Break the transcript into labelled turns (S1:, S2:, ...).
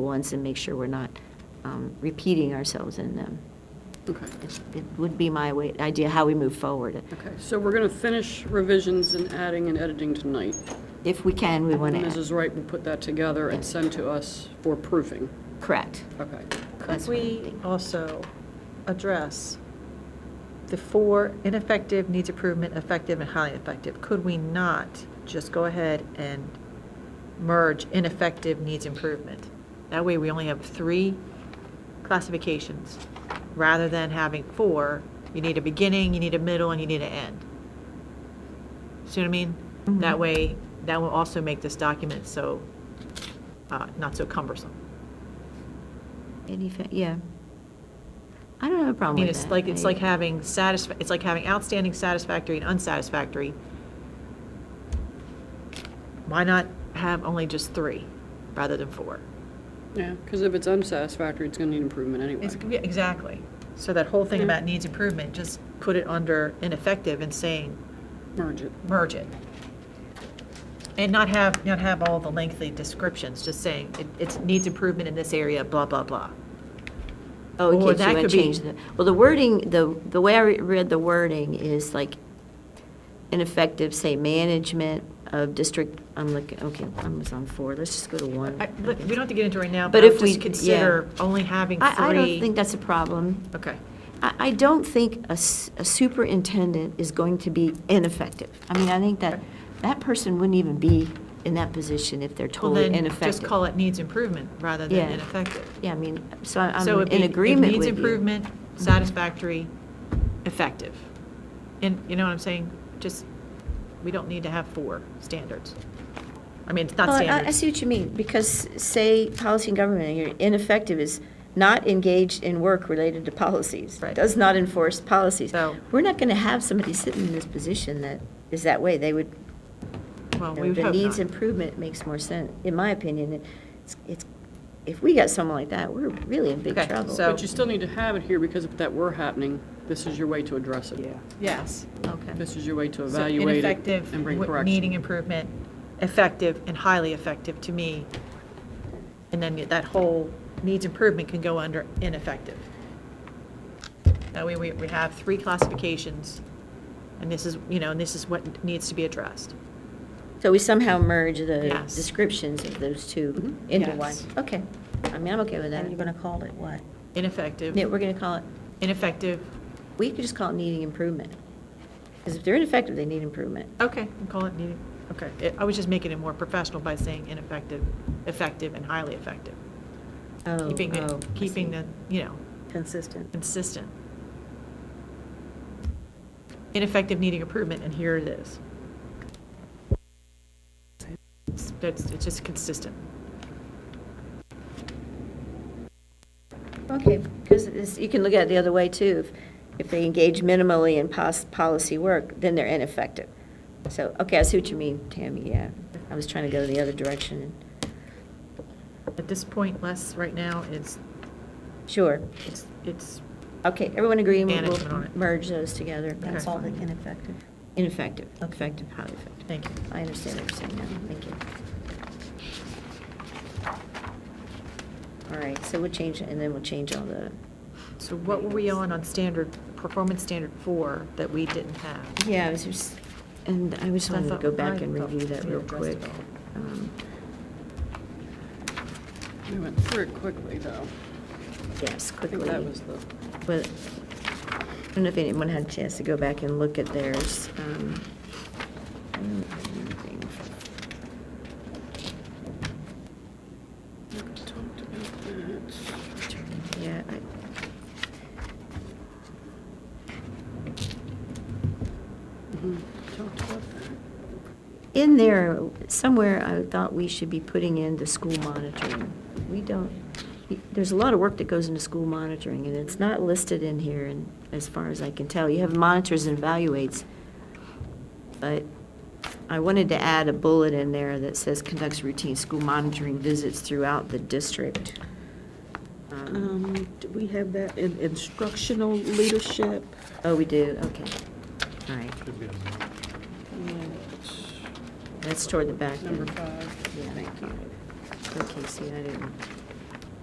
S1: ones and make sure we're not um, repeating ourselves in them.
S2: Okay,
S1: It's- It would be my way, idea how we move forward.
S2: okay, so we're going to finish revisions and adding and editing tonight.
S1: If we can, we want to,
S2: Mrs. Wright will put that together and send to us for proofing.
S1: correct.
S2: Okay.
S1: That's
S3: Could
S1: what I'm
S3: we
S1: thinking.
S3: also address the four ineffective, needs improvement, effective, and highly effective? Could we not just go ahead and merge ineffective, needs improvement? That way, we only have three classifications, rather than having four. You need a beginning, you need a middle, and you need an end. See what I mean? That way, that will also make this document so, uh, not so cumbersome.
S1: Any fa- Yeah. I don't have a
S3: I
S1: problem
S3: mean,
S1: with
S3: it's
S1: that.
S3: like, it's
S1: I-
S3: like having satisf, it's like having outstanding, satisfactory, and unsatisfactory. Why not have only just three rather than four?
S2: Yeah, because if it's unsatisfactory, it's going to need improvement anyway.
S3: It's- yeah, Exactly. Mm-hmm. So that whole thing about needs improvement, just put it under ineffective and saying,
S2: Merge it.
S3: merge it. And not have, not have all the lengthy descriptions, just saying, it, it's needs improvement in this area, blah, blah, blah.
S1: Oh,
S3: Or
S1: okay, so
S3: that
S1: you want
S3: could
S1: to
S3: be-
S1: change the, well, the wording, the, the way I re- read the wording is like ineffective, say, management of district, I'm looking, okay, I was on four, let's just go to one.
S3: I- but we don't have to get into it right now,
S1: But
S3: but I'll
S1: if we-
S3: just consider only having three.
S1: I, I don't think that's a problem.
S3: Okay.
S1: I, I don't think a, s- a superintendent is going to be ineffective. I mean, I think that, that person wouldn't even be in that position if they're
S3: Well,
S1: totally
S3: then, just
S1: ineffective.
S3: call it needs improvement rather
S1: Yeah.
S3: than ineffective.
S1: Yeah, I mean, so I- I'm
S3: So it'd be-
S1: in
S3: it
S1: agreement
S3: Needs
S1: with you. Mm-hmm.
S3: improvement, satisfactory, effective. And, you know what I'm saying? Just, we don't need to have four standards. I mean, it's not
S1: Well, I- I
S3: standards.
S1: see what you mean, because say, policy and government, you're ineffective is not engaged in work related to policies.
S3: Right.
S1: Does not enforce policies.
S3: So-
S1: We're not gonna have somebody sitting in this position that is that way. They would,
S3: Well, we would
S1: the
S3: hope
S1: needs
S3: not.
S1: improvement makes more sense, in my opinion. It's, it's, if we got someone like that, we're really in big
S3: Okay,
S1: trouble.
S3: so-
S2: But you still need to have it here because if that were happening, this is your way to address it. Yeah.
S3: Yes.
S1: Okay.
S2: This is your way to
S3: So
S2: evaluate it
S3: ineffective,
S2: and bring
S3: w-
S2: correction.
S3: Needing improvement, effective and highly effective to me. And then that whole needs improvement can go under ineffective. That way we, we have three classifications and this is, you know, and this is what needs to be addressed.
S1: So we somehow merge the
S3: Yes. Mm-hmm.
S1: descriptions of those two into one?
S3: Yes.
S1: Okay. I mean, I'm okay with that.
S4: And you're going to call it what?
S1: Yeah,
S3: Ineffective,
S1: we're gonna call it
S3: ineffective,
S1: We could just call it needing improvement. Because if they're ineffective, they need improvement.
S3: okay, we'll call it needing, okay. It- I was just making it more professional by saying ineffective, effective and highly effective.
S1: Oh,
S3: Keeping
S1: oh,
S3: the,
S1: I
S3: keeping
S1: see.
S3: the, you know,
S4: Consistent.
S3: consistent. Ineffective needing improvement, and here it is. It's- That's, it's just consistent.
S1: Okay, because you can look at it the other way, too. If if they engage minimally in pos- policy work, then they're ineffective. So, okay, I see what you mean, Tammy, yeah. I was trying to go the other direction.
S3: At this point, less right now, it's,
S1: Sure.
S3: it's, it's,
S1: Okay, everyone agree? and
S3: Management on
S1: We'll
S3: it.
S1: merge those together.
S4: That's all they can effective.
S1: Ineffective, effective, highly effective.
S3: thank you.
S1: I understand what you're saying now, thank you. All right, so we'll change, and then we'll change all the,
S3: So what were we on, on standard, performance standard four that we didn't have?
S1: yeah, I was just, and I just
S3: I
S1: wanted to
S3: thought-
S1: go back
S3: I
S1: and
S3: thought
S1: review that
S3: we
S1: real
S3: addressed
S1: quick.
S3: it all.
S1: Um,
S2: We went through it quickly, though.
S1: Yes,
S2: I think
S1: quickly.
S2: that was the,
S1: But I don't know if anyone had a chance to go back and look at theirs. um, I don't have anything.
S2: talked about that.
S1: Yeah, I,
S2: Mhm, Talked about that.
S1: in there, somewhere, I thought we should be putting in the school monitoring. We don't, there's a lot of work that goes into school monitoring, and it's not listed in here, and as far as I can tell. You have monitors and evaluates, but I wanted to add a bullet in there that says conducts routine school monitoring visits throughout the district. Um,
S4: Um, do we have that in instructional leadership?
S1: Oh, we do, okay. All right,
S2: And
S1: that's toward the back.
S2: Number
S1: then.
S2: five.
S1: Yeah.
S2: Thank you.
S1: Okay, see, I didn't,